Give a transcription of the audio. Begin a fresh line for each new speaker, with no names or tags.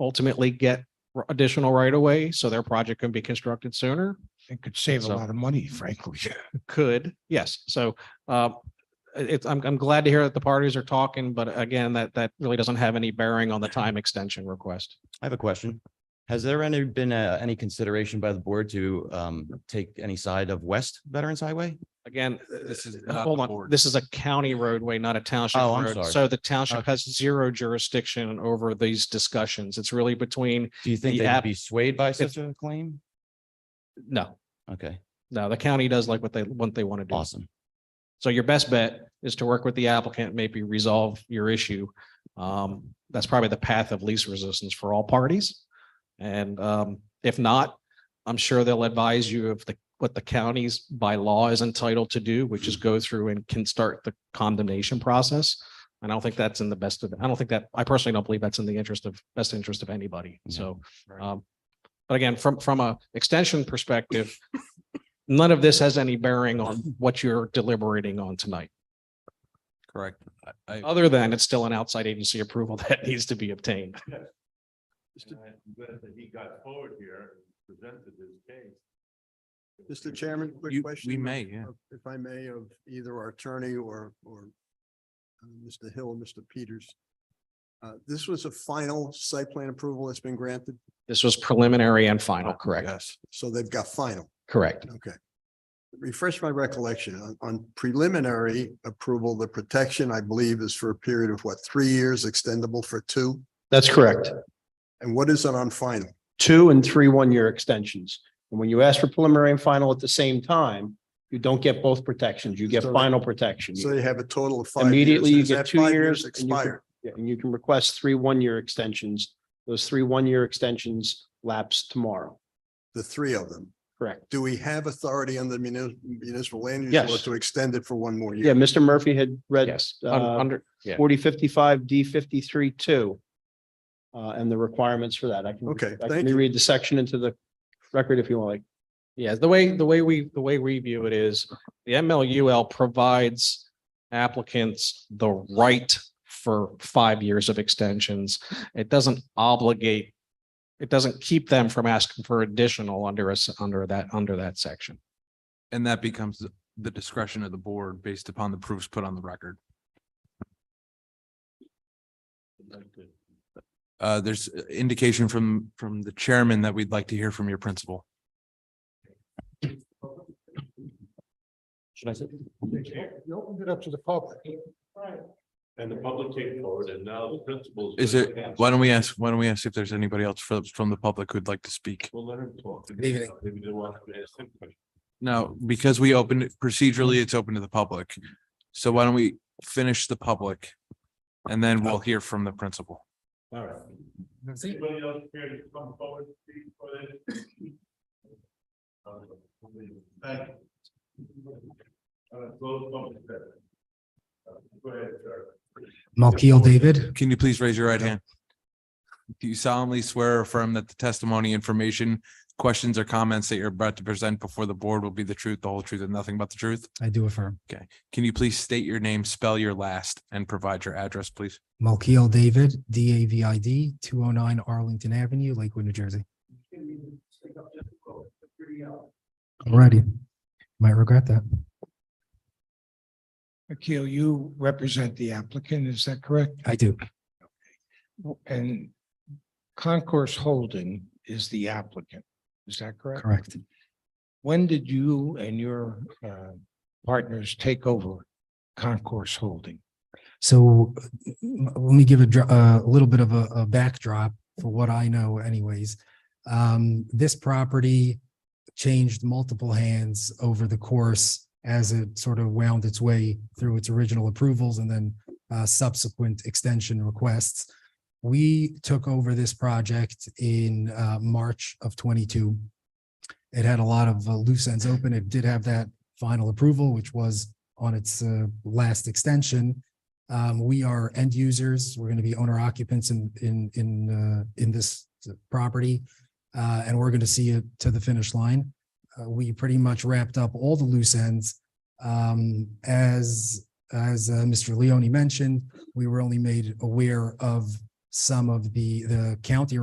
ultimately get r- additional right of way so their project can be constructed sooner?
It could save a
So-
lot of money, frankly.
Could, yes. So uh, it's, I'm, I'm glad to hear that the parties are talking, but again, that, that really doesn't have any bearing on the time extension request.
I have a question. Has there any been uh, any consideration by the board to um take any side of West Veterans Highway?
Again,
This is
uh,
not
hold
the
on,
board.
this is a county roadway, not a township
Oh, I'm
road.
sorry.
So the township has zero jurisdiction over these discussions. It's really between,
Do you think
The
they'd
app-
be swayed by such a claim?
no,
Okay,
no, the county does like what they, what they want to do.
awesome.
So your best bet is to work with the applicant, maybe resolve your issue. Um, that's probably the path of least resistance for all parties. And um, if not, I'm sure they'll advise you of the, what the county's by law is entitled to do, which is go through and can start the condemnation process. And I don't think that's in the best of, I don't think that, I personally don't believe that's in the interest of, best interest of anybody.
Yeah.
So um, But again, from, from a extension perspective, none of this has any bearing on what you're deliberating on tonight,
Correct. I, I-
other than it's still an outside agency approval that needs to be obtained.
And I'm glad that he got forward here and presented his case.
Mr. Chairman, quick
You-
question.
we
of-
may, yeah.
of- If I may, of either our attorney or, or uh, Mr. Hill, and Mr. Peters. Uh, This was a final site plan approval that's been granted,
This was preliminary and final, correct?
Yes. so they've got final,
Correct.
okay. Refresh my recollection, on- on preliminary approval, the protection, I believe, is for a period of what, three years, extendable for two?
That's correct.
And what is it on final?
Two and three one-year extensions. And when you ask for preliminary and final at the same time, you don't get both protections. You get
So-
final protection.
So you have a total of five. years.
Immediately, you
Is
get
that
two
five
years. and you can-
Expired.
yeah, And you can request three one-year extensions. Those three one-year extensions lapse tomorrow.
the three of them.
Correct.
Do we have authority under the munis- municipal land use law
Yes.
to extend it for one more
Yeah,
year?
Mr. Murphy had read
Yes, un-
uh,
under, yeah.
forty fifty-five D fifty-three two. Uh, and the requirements for that. I can,
Okay,
I can
thank you.
reread the section into the record if you want. like.
Yeah, the way, the way we, the way we view it is the MLUL provides applicants the right for five years of extensions. It doesn't obligate, it doesn't keep them from asking for additional under us, under that, under that section.
and that becomes the discretion of the board based upon the proofs put on the record. Uh, there's indication from, from the chairman that we'd like to hear from your principal.
Should I say?
You opened it up to the public.
And the public came forward and now the principals.
Is it, why don't we ask, why don't we ask if there's anybody else from, from the public who'd like to speak?
We'll let him talk. Good
evening.
Maybe they want to ask him questions.
No, because we opened it procedurally, it's open to the public. So why don't we finish the public? And then we'll hear from the principal.
All right. Anybody else here to come forward? speak for this? Thank you. Uh, close public session. Uh, Go ahead, sir.
Malkiel David,
Can you please raise your right hand? Do you solemnly swear or affirm that the testimony, information, questions or comments that you're about to present before the board will be the truth, the whole truth and nothing but the truth?
I do affirm.
Can you please state your name, spell your last and provide your address, please?
Malkiel David, D A V I D, two oh nine Arlington Avenue, Lakewood, New Jersey. Alrighty, might regret that.
Akil, you represent the applicant, is that correct?
I do.
And Concourse Holding is the applicant, is that correct?
Correct.
When did you and your uh, partners take over Concourse Holding?
So m- let me give a, dr- a little bit of a, a backdrop for what I know anyways. Um, this property changed multiple hands over the course as it sort of wound its way through its original approvals and then uh, subsequent extension requests. We took over this project in uh, March of 22. It had a lot of uh, loose ends open. It did have that final approval, which was on its uh, last extension. Um, we are end users. We're going to be owner occupants in, in, in, uh, in this property. Uh, and we're going to see it to the finish line. Uh, we pretty much wrapped up all the loose ends. Um, as, as, uh, Mr. Leone mentioned, we were only made aware of some of the, the county